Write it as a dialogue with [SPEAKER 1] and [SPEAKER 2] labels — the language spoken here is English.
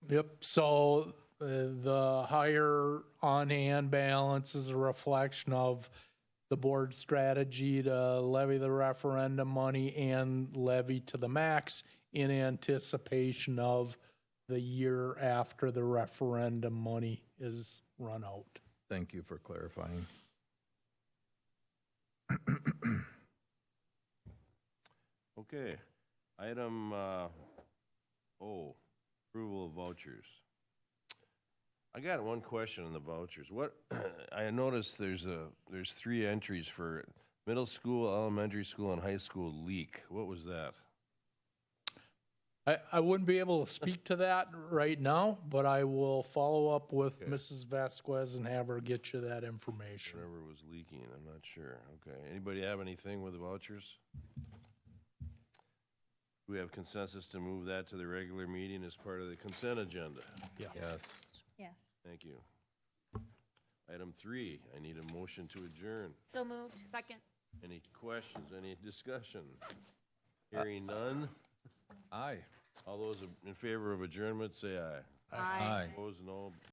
[SPEAKER 1] Yep. So uh, the higher on-hand balance is a reflection of the board's strategy to levy the referendum money and levy to the max in anticipation of the year after the referendum money is run out.
[SPEAKER 2] Thank you for clarifying.
[SPEAKER 3] Okay, item, uh, oh, approval of vouchers. I got one question on the vouchers. What, I noticed there's a, there's three entries for middle school, elementary school, and high school leak. What was that?
[SPEAKER 1] I, I wouldn't be able to speak to that right now, but I will follow up with Mrs. Vasquez and have her get you that information.
[SPEAKER 3] Whatever was leaking, I'm not sure. Okay, anybody have anything with the vouchers? We have consensus to move that to the regular meeting as part of the consent agenda.
[SPEAKER 2] Yes.
[SPEAKER 4] Yes.
[SPEAKER 3] Thank you. Item three, I need a motion to adjourn.
[SPEAKER 4] So moved. Second.
[SPEAKER 3] Any questions, any discussion? Hearing none.
[SPEAKER 2] Aye.
[SPEAKER 3] All those in favor of adjournment, say aye. Opposed, no.